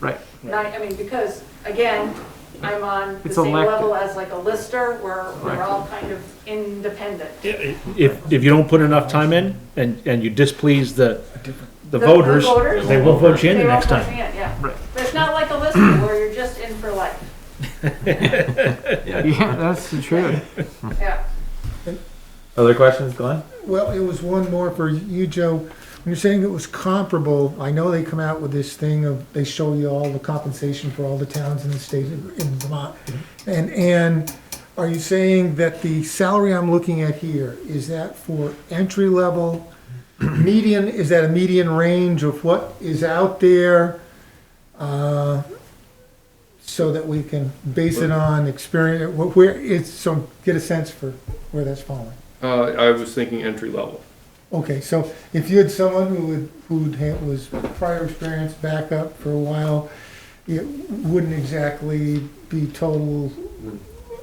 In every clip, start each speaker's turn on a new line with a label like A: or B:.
A: Right.
B: And I, I mean, because, again, I'm on the
A: It's
B: same
A: elected.
B: level as like a lister, where we're
A: Right.
B: all kind of independent.
C: If, if you don't put enough time in and, and you displease the, the
B: The- the
C: voters,
B: voters.
C: they will vote you in the
B: They
C: next
B: won't push
C: time.
B: me in, Yeah,
A: Right.
B: but it's not like a lister, where you're just in for life,
A: Yeah, that's the truth. Mm.
B: yeah.
D: Other questions, Glenn?
E: Well, it was one more for you, Joe. When you're saying it was comparable, I know they come out with this thing of, they show you all the compensation for all the towns in the state of, in Vermont. And, and are you saying that the salary I'm looking at here, is that for entry level? Median, is that a median range of what is out there? Uh, So that we can base it on experience, wh- where it's, so get a sense for where that's falling.
F: Uh, I was thinking entry level.
E: Okay, so if you had someone who would, who'd had, was prior experience back up for a while, it wouldn't exactly be total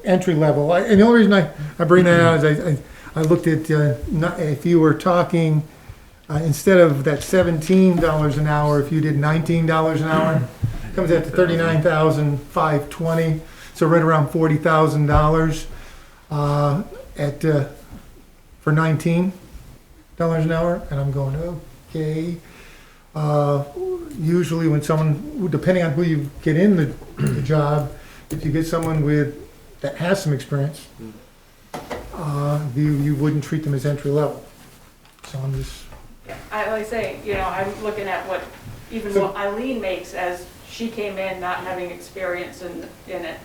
E: entry level. I- And the only reason I, I bring that out is I, I, I looked at, uh, not, if you were talking, uh, instead of that seventeen dollars an hour, if you did nineteen dollars an hour, comes out to thirty-nine thousand five twenty, so right around forty thousand dollars, uh, at, uh, for nineteen dollars an hour, and I'm going, okay. Uh, usually when someone, depending on who you get in the, the job, if you get someone with, that has some experience, uh, you, you wouldn't treat them as entry level. So I'm just,
B: Yeah, I always say, you know, I'm looking at what, even what Eileen makes as she came in not having experience in, in it.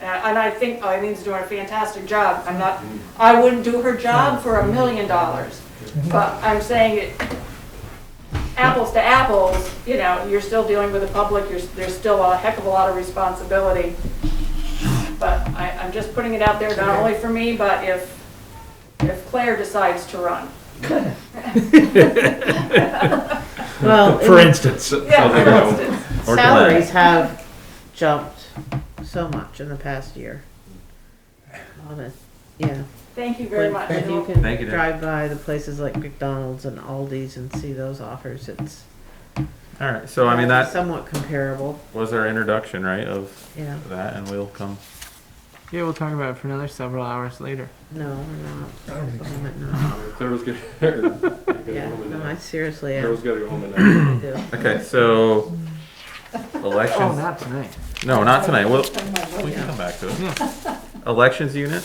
B: And I and I think Eileen's doing a fantastic job. I'm not, I wouldn't do her job for a million dollars. But I'm saying it, apples to apples, you know, you're still dealing with the public, you're, there's still a heck of a lot of responsibility. But I, I'm just putting it out there, not only for me, but if, if Claire decides to run.
C: For
G: Well,
C: instance,
B: Yeah,
F: Something
B: for
F: that-
B: instance.
D: Or
G: salaries have jumped so much in the past year. Honest, yeah.
B: Thank you very much.
G: If you
D: Thank you, Dan.
G: can drive by the places like McDonald's and Aldi's and see those offers, it's
D: All right. So I mean, that
G: somewhat comparable,
D: was our introduction, right, of
G: yeah.
D: that, and we'll come.
A: Yeah, we'll talk about it for another several hours later.
G: No, we're
E: I don't
G: not.
E: think,
G: I'm not.
F: Claire was getting, Claire was
G: Yeah, no, I seriously am.
F: gotta go home and
G: I do.
D: Okay. So
A: Oh,
D: elections.
A: not tonight.
D: No, not tonight. Well, we
G: Yeah.
D: can come back to it. Elections unit.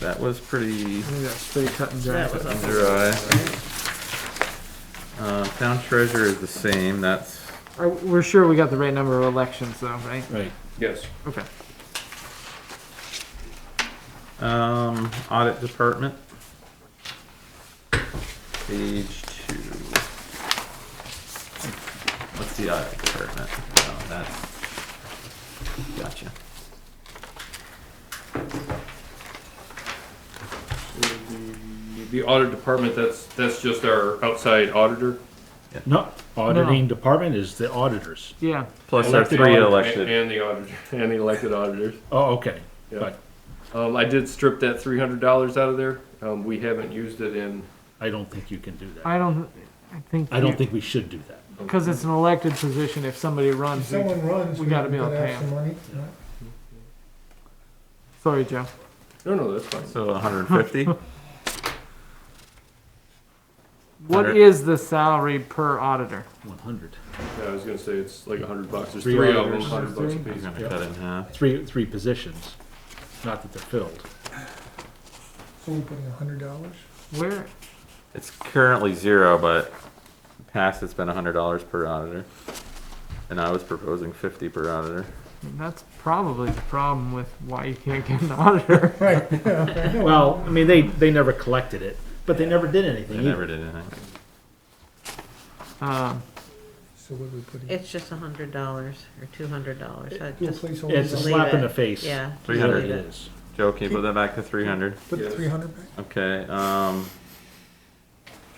D: That was pretty
A: I think that's pretty cut and dry.
G: That was awesome.
D: dry. Um, town treasurer is the same. That's
A: Are- We're sure we got the right number of elections though, right?
C: right,
F: yes.
A: Okay.
D: um, audit department. Page two. What's the audit department? Oh, that's gotcha.
F: The- The audit department, that's, that's just our outside auditor.
C: no, auditing department is the auditors.
A: Yeah.
D: Plus our
C: Elected
D: three
C: auditor.
D: elected.
F: And the auditor, and the elected auditors.
C: Oh, okay,
F: Yeah.
C: but
F: Um, I did strip that three hundred dollars out of there. Um, we haven't used it in,
C: I don't think you can do that.
A: I don't, I think.
C: I don't think we should do that.
A: Because it's an elected position, if somebody
E: if
A: runs, we-
E: someone runs,
A: We
E: we
A: gotta
E: gotta
A: be able to pay
E: have some money.
A: sorry, Joe.
F: no, no, that's fine.
D: So 150.
A: What
D: Hundred.
A: is the salary per auditor?
C: One hundred.
F: Yeah, I was gonna say it's like a hundred bucks. There's
C: Three
F: three of them,
C: auditors.
F: hundred bucks a
D: I'm
F: piece.
D: gonna cut it in half.
C: Three, three positions, not that they're filled.
E: So we're putting a hundred dollars?
A: Where,
D: It's currently zero, but past it's been hundred dollars per auditor, and I was proposing fifty per auditor.
A: that's probably the problem with why you can't get an auditor.
E: Right.
C: Well, I mean, they, they never collected it, but they never did
D: I
C: anything
D: never
C: either.
D: did anything.
A: Um,
E: So what are we putting?
G: It's just a hundred dollars or two hundred dollars. I
E: Do a
G: just,
E: placeholder
C: It's a
E: down.
G: Leave
C: slap in
G: it.
C: the face.
G: yeah. just
C: Is what
D: 300
G: leave
C: it
G: it.
C: is.
D: Joe, can you put that back to three hundred?
E: Put the
F: Yes.
E: three hundred back?
D: Okay. Um,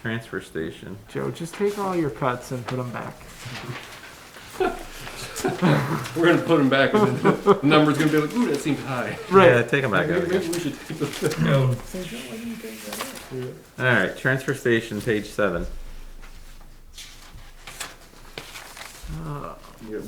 D: transfer station.
A: Joe, just take all your cuts and put them back.
F: We're gonna put them back and then the number's gonna be like, ooh, that seems high.
D: Yeah,
A: Right.
D: take them back out.
F: Maybe
D: again.
F: we should take those back out.
E: Say, "Joe, why didn't you take that out?"
D: All right, transfer station, page seven.
A: Uh,
F: you know,